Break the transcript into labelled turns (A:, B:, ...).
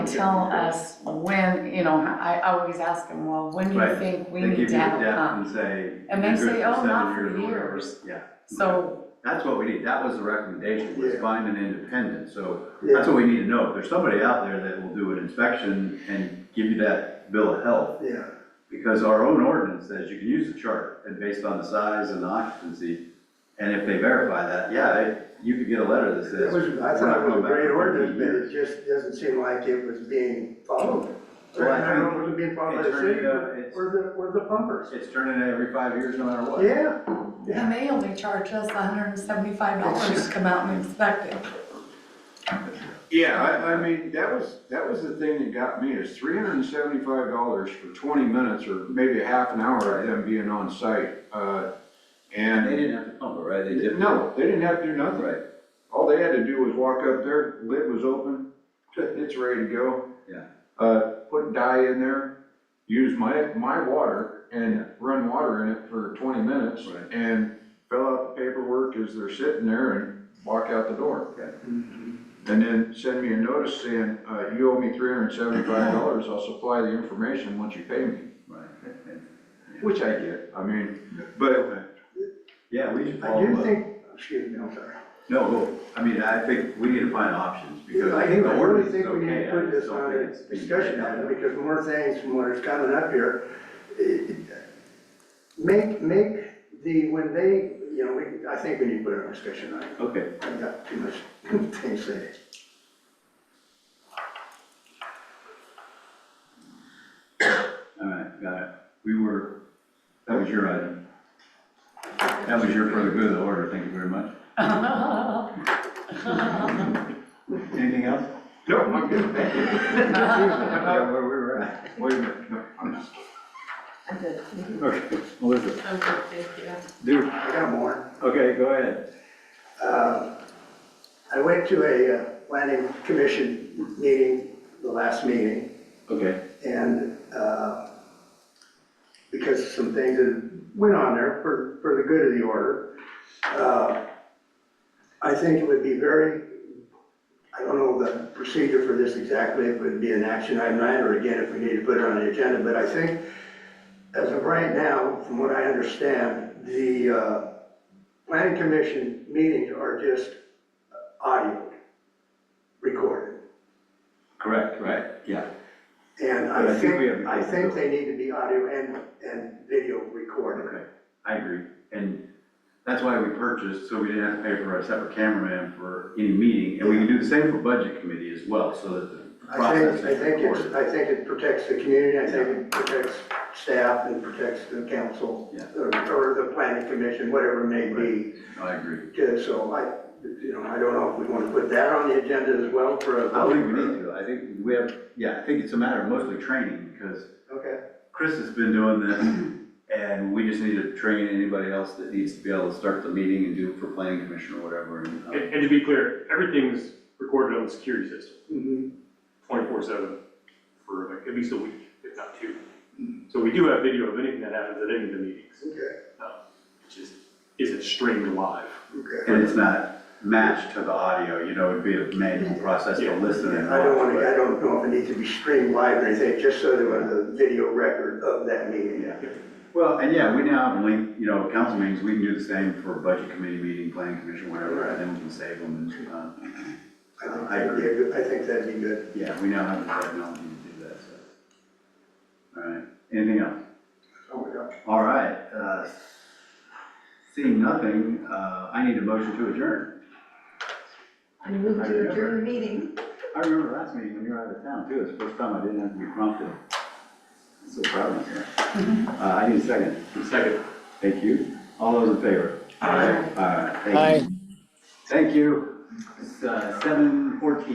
A: tell us when, you know, I, I always ask them, well, when do you
B: Right.
A: think we
B: They give you
A: need
B: a
A: to have a
B: depth
A: pump?
B: and say.
A: And they
B: you're good
A: say, "Oh, not
B: seven
A: for
B: or whatever."
A: years.
B: Yeah.
A: So,
B: That's what we need, that was the recommendation, was
C: Yeah.
B: find an independent, so that's
C: Yeah,
B: what we need to know. If there's somebody out there that will do an inspection and give you that bill of health,
C: yeah,
B: because our own ordinance says you can use the chart, and based on the size and the occupancy, and if they verify that, yeah, they- you could get a letter that
C: it
B: says.
C: was, I
B: "We're not
C: thought it was a
B: going back
C: great
B: for 30
C: ordinance, but
B: years."
C: it just doesn't seem like it was being followed.
B: Well, I
C: I don't know if it was being followed by the
B: It's
C: city,
B: turning out-
C: or
B: uh, it's-
C: or the, or the pumpers.
B: It's turning every five years, no matter what.
C: Yeah, yeah.
A: and they only charge us hundred and seventy-five dollars to come out and inspect it.
D: Yeah, I, I mean, that was, that was the thing that got me, is three hundred and seventy-five dollars for twenty minutes or maybe a half an hour of them being on site, uh,
B: And they
D: and,
B: didn't have to pump it, right? They did.
D: no, they didn't have to do nothing.
B: Right,
D: All they had to do was walk up there, lid was open, it's ready to go.
B: Yeah.
D: Uh, put dye in there, use my, my water and run water in it for twenty minutes.
B: Right.
D: And fill out the paperwork as they're sitting there and walk out the door.
B: Okay.
D: And then send me a notice saying, uh, you owe me three hundred and seventy-five dollars, I'll supply the information once you pay me,
B: right.
D: which I get, I mean, but,
B: Yeah, we should
C: I
B: follow
C: do
B: up.
C: think, excuse me, I'm sorry.
B: No, well, I mean, I think we need to find options, because
C: I
B: I
C: think,
B: think the
C: I really
B: ordinance is
C: think we need
B: okay.
C: to
B: I
C: put
B: just
C: this
B: don't
C: on
B: think
C: a
B: it's being
C: discussion
B: carried out.
C: item, because more things from what is coming up here. eh, Make, make the, when they, you know, we, I think we need to put it on a discussion item.
B: Okay,
C: I've got too much things to say.
B: all right, got it. We were, that was your item. That was your for the good of the order, thank you very much. Anything else?
D: no, I'm good, thank you.
B: Yeah, where we were at.
D: Wait a minute, no, I'm just.
E: I'm good,
B: Okay, Elizabeth,
E: I'm good, thank you.
B: do,
C: I got more.
B: okay, go ahead.
C: Uh, I went to a uh, planning commission meeting, the last meeting,
B: Okay,
C: and uh, because of some things that went on there for, for the good of the order, uh, I think it would be very, I don't know the procedure for this exactly, if it would be an action item or again, if we need to put it on the agenda, but I think as of right now, from what I understand, the uh, planning commission meetings are just audio recorded.
B: correct, right? Yeah.
C: And
B: But
C: I
B: I think we have
C: think,
B: the
C: I think they need to be audio and, and video recorded.
B: Okay, I agree, and that's why we purchased, so we didn't have to pay for a separate cameraman for any meeting, and we can do the same for budget committee as well, so that the
C: I
B: process
C: think, I
B: is
C: think it's,
B: recorded.
C: I think it protects the community, I think it protects staff and protects the council,
B: Yeah.
C: or or the planning commission, whatever it may be.
B: I agree.
C: Okay, So I, you know, I don't know if we want to put that on the agenda as well for a.
B: I don't think we need to, I think we have, yeah, I think it's a matter of mostly training, because
C: Okay.
B: Chris has been doing this, and we just need to train anybody else that needs to be able to start the meeting and do it for planning commission or whatever, and, um,
F: And, and to be clear, everything's recorded on the security system,
C: Mhm.
F: twenty-four seven, for like at least a week, if not two. So we do have video of anything that happens at any of the meetings,
C: Okay,
F: um, it just isn't streamed live.
C: okay.
B: and it's not matched to the audio, you know, it'd be a manual process to listen and uh,
C: I don't
B: watch,
C: want to, I
B: but,
C: don't know if it needs to be streamed live or anything, just so there was a video record of that meeting.
B: yeah. Well, and yeah, we now have link, you know, council meetings, we can do the same for budget committee meeting, planning commission, whatever, and then we can save them, and, um,
C: I think
B: I
C: that'd be a good, I think that'd be good.
B: Yeah, we now have the technology to do that, so. All right, anything else?
C: Oh, my gosh.
B: All right, uh, seeing nothing, uh, I need a motion to adjourn.
E: I moved to adjourn the meeting.
B: I remember last meeting when you were out of town too, it's the first time I didn't have to be prompted. I'm so proud of myself. Uh, I need a second,
F: Second.
B: thank you. All those in favor? All right, thank you. Thank you. It's, uh, seven fourteen.